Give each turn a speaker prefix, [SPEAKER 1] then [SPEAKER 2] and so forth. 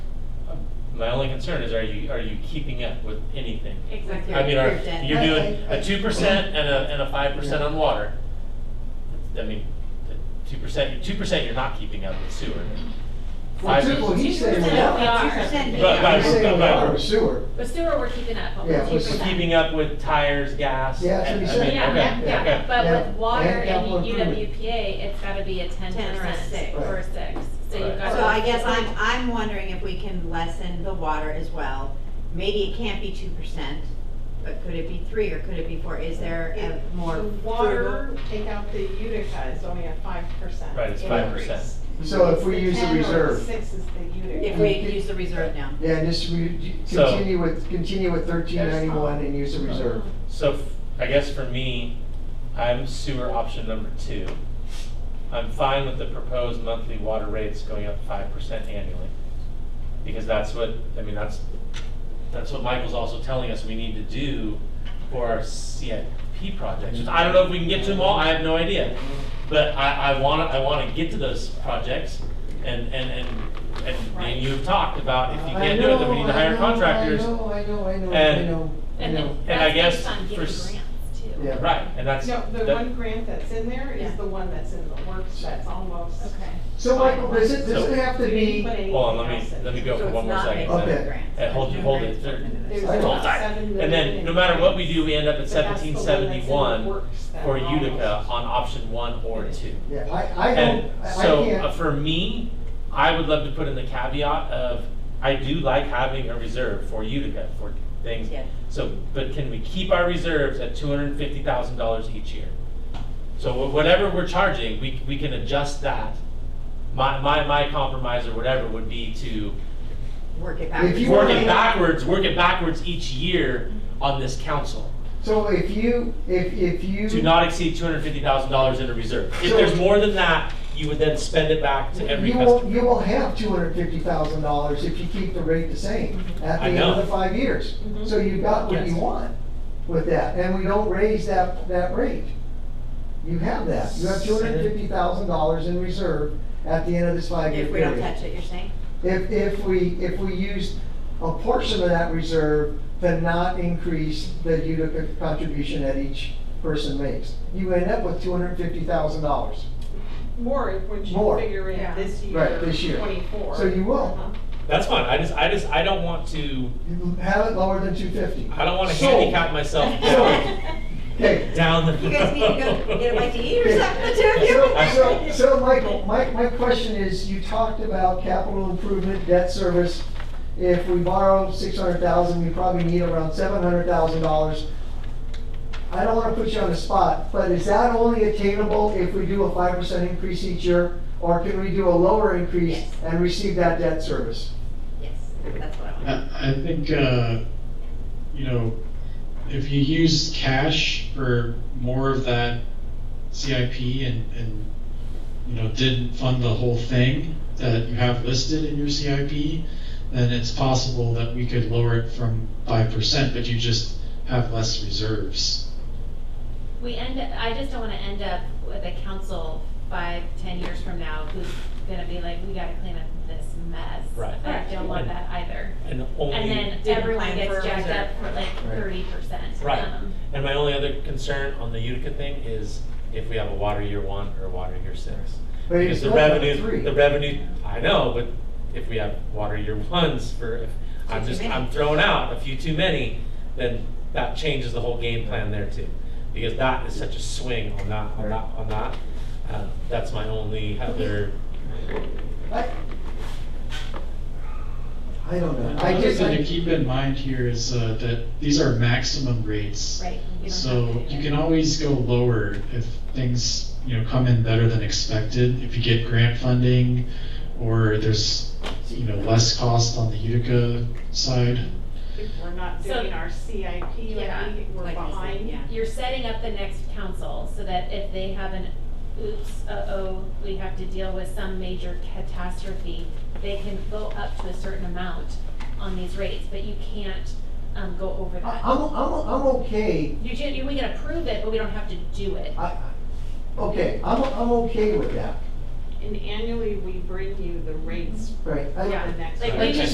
[SPEAKER 1] my only concern is, are you, are you keeping up with anything?
[SPEAKER 2] Exactly.
[SPEAKER 1] I mean, are,
[SPEAKER 3] Your debt.
[SPEAKER 1] you're doing
[SPEAKER 3] I- I-
[SPEAKER 1] a two percent and a, and a five percent on water. I mean, two percent, two percent you're not keeping up with sewer.
[SPEAKER 4] Well,
[SPEAKER 1] Five
[SPEAKER 4] two, well,
[SPEAKER 1] percent.
[SPEAKER 4] he's saying we
[SPEAKER 2] No,
[SPEAKER 4] are.
[SPEAKER 2] are.
[SPEAKER 3] Two percent.
[SPEAKER 1] But- but-
[SPEAKER 4] He's saying we
[SPEAKER 1] but-
[SPEAKER 4] are with sewer.
[SPEAKER 2] But sewer, we're keeping up on
[SPEAKER 4] Yeah,
[SPEAKER 2] two
[SPEAKER 4] we're
[SPEAKER 1] We're
[SPEAKER 2] percent.
[SPEAKER 1] keeping up with tires, gas.
[SPEAKER 4] Yeah, that's what
[SPEAKER 1] and-
[SPEAKER 4] he
[SPEAKER 1] I
[SPEAKER 4] said.
[SPEAKER 1] mean,
[SPEAKER 2] Yeah, yeah,
[SPEAKER 1] okay,
[SPEAKER 2] yeah,
[SPEAKER 1] okay.
[SPEAKER 2] but
[SPEAKER 4] Yeah.
[SPEAKER 2] with water
[SPEAKER 4] And
[SPEAKER 2] and
[SPEAKER 4] capital improvement.
[SPEAKER 2] UWPA, it's gotta be a ten
[SPEAKER 3] 10 or a
[SPEAKER 2] percent
[SPEAKER 3] six.
[SPEAKER 2] or a six, so
[SPEAKER 1] Right.
[SPEAKER 2] you've got.
[SPEAKER 3] So I guess I'm, I'm wondering if we can lessen the water as well. Maybe it can't be two percent, but could it be three or could it be four? Is there a more
[SPEAKER 5] The
[SPEAKER 3] frugal?
[SPEAKER 5] Water, take out the Utica, is only at five percent.
[SPEAKER 1] Right, it's 5%.
[SPEAKER 4] So if we use the reserve,
[SPEAKER 5] Six is the
[SPEAKER 3] If
[SPEAKER 5] Utica.
[SPEAKER 3] we use the reserve now.
[SPEAKER 4] yeah, and just re-
[SPEAKER 1] So-
[SPEAKER 4] continue with, continue with thirteen ninety-one and use the reserve.
[SPEAKER 1] So f- I guess for me, I'm sewer option number two. I'm fine with the proposed monthly water rates going up five percent annually. Because that's what, I mean, that's, that's what Michael's also telling us we need to do for our CIP projects. Which I don't know if we can get to them all, I have no idea. But I, I wanna, I wanna get to those projects and, and, and, and me and you have talked about if you
[SPEAKER 4] I
[SPEAKER 1] can't do it, then we need
[SPEAKER 4] know,
[SPEAKER 1] to hire
[SPEAKER 4] I know,
[SPEAKER 1] contractors.
[SPEAKER 4] I know, I know, I know, I
[SPEAKER 1] And-
[SPEAKER 4] know, I
[SPEAKER 2] And
[SPEAKER 4] know.
[SPEAKER 2] then
[SPEAKER 1] And I
[SPEAKER 2] that's
[SPEAKER 1] guess
[SPEAKER 2] based on
[SPEAKER 1] for
[SPEAKER 2] getting
[SPEAKER 1] s-
[SPEAKER 2] grants too.
[SPEAKER 4] Yeah.
[SPEAKER 1] Right, and that's.
[SPEAKER 5] No, the
[SPEAKER 1] that-
[SPEAKER 5] one grant that's in there is
[SPEAKER 3] Yeah.
[SPEAKER 5] the one that's in the works, that's almost.
[SPEAKER 2] Okay.
[SPEAKER 4] So Michael, does it, does
[SPEAKER 1] So-
[SPEAKER 4] it have to
[SPEAKER 5] We
[SPEAKER 4] be,
[SPEAKER 5] didn't put anything
[SPEAKER 1] Hold on, let me,
[SPEAKER 5] else in.
[SPEAKER 1] let me go
[SPEAKER 3] So
[SPEAKER 1] for
[SPEAKER 3] it's
[SPEAKER 1] one more
[SPEAKER 3] not
[SPEAKER 1] second.
[SPEAKER 3] making
[SPEAKER 4] Okay.
[SPEAKER 1] then.
[SPEAKER 3] the grants.
[SPEAKER 1] And hold, hold it, there-
[SPEAKER 5] There's
[SPEAKER 4] Hold
[SPEAKER 5] about
[SPEAKER 1] tight.
[SPEAKER 5] seven
[SPEAKER 1] and then,
[SPEAKER 5] million
[SPEAKER 1] no matter what we
[SPEAKER 5] grants.
[SPEAKER 1] do, we end up at
[SPEAKER 5] But that's the
[SPEAKER 1] seventeen
[SPEAKER 5] one that's in the
[SPEAKER 1] seventy-one
[SPEAKER 5] works that
[SPEAKER 1] for
[SPEAKER 5] almost-
[SPEAKER 1] Utica uh, on option one or two.
[SPEAKER 4] yeah, I, I
[SPEAKER 1] And
[SPEAKER 4] don't, I I
[SPEAKER 1] so, uh,
[SPEAKER 4] can't,
[SPEAKER 1] for me, I would love to put in the caveat of, I do like having a reserve for Utica, for things.
[SPEAKER 3] Yeah.
[SPEAKER 1] So, but can we keep our reserves at two hundred and fifty thousand dollars each year? So wh- whatever we're charging, we, we can adjust that. My, my, my compromise or whatever would be to
[SPEAKER 3] Work it back.
[SPEAKER 4] If you
[SPEAKER 1] work
[SPEAKER 4] wanna-
[SPEAKER 1] it backwards, work it backwards each year on this council.
[SPEAKER 4] so if you, if, if you.
[SPEAKER 3] Mm-hmm.
[SPEAKER 1] Do not exceed two hundred fifty thousand dollars in a reserve. If there's more than that, you would then spend it back to every
[SPEAKER 4] You will,
[SPEAKER 1] customer.
[SPEAKER 4] you will have two hundred fifty thousand dollars if you keep the rate the same at the
[SPEAKER 1] I
[SPEAKER 4] end of
[SPEAKER 1] know.
[SPEAKER 4] the five years.
[SPEAKER 3] Mm-hmm.
[SPEAKER 4] So you got what you
[SPEAKER 1] Yes.
[SPEAKER 4] want with that, and we don't raise that, that rate. You have that, you have two hundred fifty thousand dollars in reserve at the end of this five-year
[SPEAKER 3] If we don't
[SPEAKER 4] period.
[SPEAKER 3] touch it, you're saying?
[SPEAKER 4] If, if we, if we use a portion of that reserve to not increase the Utica contribution that each person makes, you end up with two hundred fifty thousand dollars.
[SPEAKER 5] More if when you
[SPEAKER 4] More.
[SPEAKER 5] figure in
[SPEAKER 2] Yeah.
[SPEAKER 5] this year.
[SPEAKER 4] Right, this year.
[SPEAKER 5] Twenty-four.
[SPEAKER 4] So you will.
[SPEAKER 5] Uh-huh.
[SPEAKER 1] That's fine. I just, I just, I don't want to,
[SPEAKER 4] You have it lower than two fifty.
[SPEAKER 1] I don't want to
[SPEAKER 4] So-
[SPEAKER 1] handicap myself down-
[SPEAKER 4] Okay,
[SPEAKER 1] down the.
[SPEAKER 3] You guys need to go get a bite to eat or something, the two of
[SPEAKER 4] So,
[SPEAKER 3] you?
[SPEAKER 4] so Michael, my, my question is, you talked about capital improvement, debt service. If we borrow six hundred thousand, we probably need around seven hundred thousand dollars. I don't wanna put you on the spot, but is that only attainable if we do a five percent increase each year? Or can we do a lower increase
[SPEAKER 3] Yes.
[SPEAKER 4] and receive that debt service?
[SPEAKER 3] Yes, that's what I want.
[SPEAKER 6] I I think, uh, you know, if you use cash for more of that CIP and, and, you know, didn't fund the whole thing that you have listed in your CIP, then it's possible that we could lower it from five percent, but you just have less reserves.
[SPEAKER 2] We end, I just don't wanna end up with a council five, ten years from now who's gonna be like, we gotta clean up this mess.
[SPEAKER 1] Right.
[SPEAKER 2] I don't want that either.
[SPEAKER 1] And
[SPEAKER 2] And
[SPEAKER 1] only,
[SPEAKER 2] then
[SPEAKER 3] Didn't
[SPEAKER 2] everyone
[SPEAKER 3] plan for a
[SPEAKER 2] gets jacked up for like
[SPEAKER 4] Right.
[SPEAKER 2] thirty percent. um,
[SPEAKER 1] Right. and my only other concern on the Utica thing is if we have a water year one or a water year six.
[SPEAKER 4] But it's
[SPEAKER 1] Because the
[SPEAKER 4] not like
[SPEAKER 1] revenue,
[SPEAKER 4] three.
[SPEAKER 1] the revenue, I know, but if we have water year ones for, if, I'm
[SPEAKER 3] Too
[SPEAKER 1] just,
[SPEAKER 3] many.
[SPEAKER 1] I'm throwing out a few too many, then that changes the whole game plan there too. Because that is such a swing on that, on that, on that. Uh, That's my only other,
[SPEAKER 4] I I don't know, I
[SPEAKER 6] Another
[SPEAKER 4] just,
[SPEAKER 6] thing to
[SPEAKER 4] I,
[SPEAKER 6] keep in mind here is, uh, that these are maximum rates.
[SPEAKER 2] Right. you don't have
[SPEAKER 6] So
[SPEAKER 2] to do
[SPEAKER 6] you
[SPEAKER 2] that.
[SPEAKER 6] can always go lower if things, you know, come in better than expected, if you get grant funding or there's, you know, less cost on the Utica side.
[SPEAKER 5] If we're not
[SPEAKER 2] So-
[SPEAKER 5] doing our CIP, like
[SPEAKER 2] Yeah,
[SPEAKER 5] we- we're
[SPEAKER 3] Like you said,
[SPEAKER 5] behind.
[SPEAKER 3] Yeah.
[SPEAKER 2] You're setting up the next council so that if they have an oops, uh-oh, we have to deal with some major catastrophe, they can go up to a certain amount on these rates, but you can't, um, go over
[SPEAKER 4] I-
[SPEAKER 2] that.
[SPEAKER 4] I'm, I'm, I'm okay
[SPEAKER 2] You ju- you, we can approve it, but we don't have to do it.
[SPEAKER 4] I, okay, I'm, I'm okay with that,
[SPEAKER 5] And annually, we bring you the rates
[SPEAKER 4] right? I-
[SPEAKER 5] for the next.
[SPEAKER 2] Like,
[SPEAKER 5] year.
[SPEAKER 2] we just